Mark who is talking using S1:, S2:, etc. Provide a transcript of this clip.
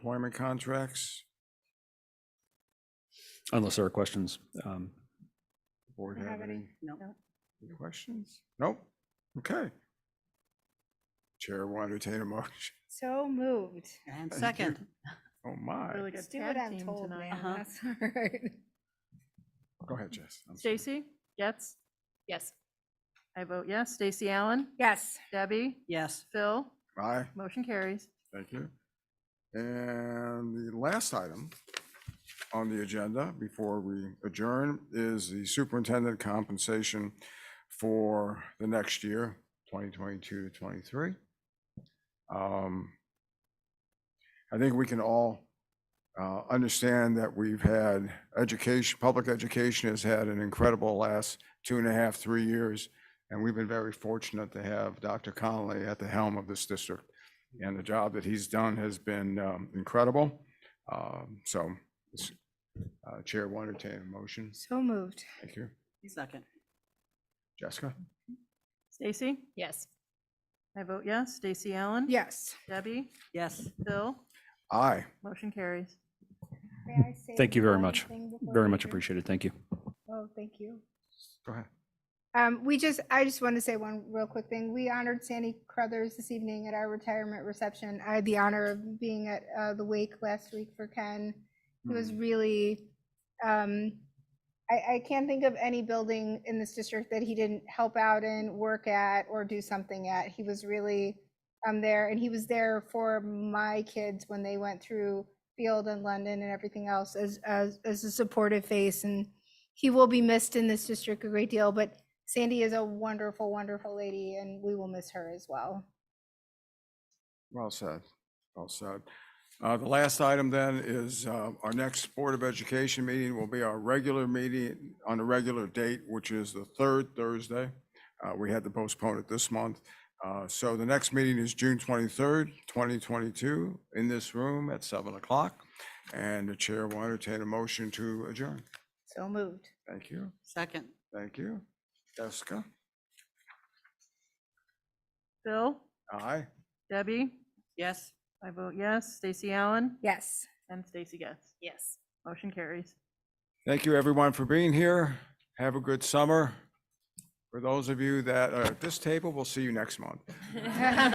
S1: employment contracts.
S2: Unless there are questions. um,
S1: Board
S3: Don't
S1: have
S3: have any.
S1: any
S3: No.
S1: any questions? Nope. Okay. Chair will entertain a motion.
S3: So moved.
S4: And
S1: Thank you.
S4: second,
S1: Oh, my.
S5: Really good
S3: Let's do what
S5: tag
S3: I'm
S5: team
S3: told,
S5: tonight.
S3: man.
S4: Uh-huh.
S3: That's all right.
S1: Go ahead, Jess. I'm sorry.
S5: Stacy Getz? Yes. I vote yes. Stacy Allen?
S3: Yes.
S5: Debbie?
S4: yes,
S5: Phil?
S1: Aye,
S5: Motion carries.
S1: thank you. And the last item on the agenda before we adjourn is the superintendent compensation for the next year, 2022 to 23. Um, I think we can all uh, understand that we've had education, public education has had an incredible last two and a half, three years. And we've been very fortunate to have Dr. Conley at the helm of this district. And the job that he's done has been um, incredible. Um, So this, uh, Chair will entertain a motion.
S3: So moved.
S1: Thank you.
S4: second,
S1: Jessica?
S5: Stacy? Yes. I vote yes. Stacy Allen?
S3: Yes.
S5: Debbie?
S4: yes.
S5: Phil?
S1: Aye.
S5: Motion carries.
S2: Thank you very much. Very much appreciated. Thank you.
S3: Oh, thank you.
S1: Go ahead.
S3: Um, we just, I just want to say one real quick thing. We honored Sandy Crothers this evening at our retirement reception. I had the honor of being at uh, the wake last week for Ken. It was really, um, I, I can't think of any building in this district that he didn't help out in, work at, or do something at. He was really um, there, and he was there for my kids when they went through Field and London and everything else as as as a supportive face. And he will be missed in this district a great deal, but Sandy is a wonderful, wonderful lady, and we will miss her as well.
S1: Well said, well said. Uh, The last item then is uh, our next Board of Education meeting will be our regular meeting on a regular date, which is the third Thursday. Uh, We had to postpone it this month. Uh, So the next meeting is June 23rd, 2022, in this room at 7 o'clock. And the chair will entertain a motion to adjourn.
S3: So moved.
S1: Thank you,
S4: Second,
S1: thank you. Jessica?
S5: Phil?
S1: Aye.
S5: Debbie?
S4: yes.
S5: I vote yes. Stacy Allen?
S3: Yes.
S5: And Stacy Getz?
S4: Yes.
S5: Motion carries.
S1: Thank you, everyone, for being here. Have a good summer. For those of you that are at this table, we'll see you next month.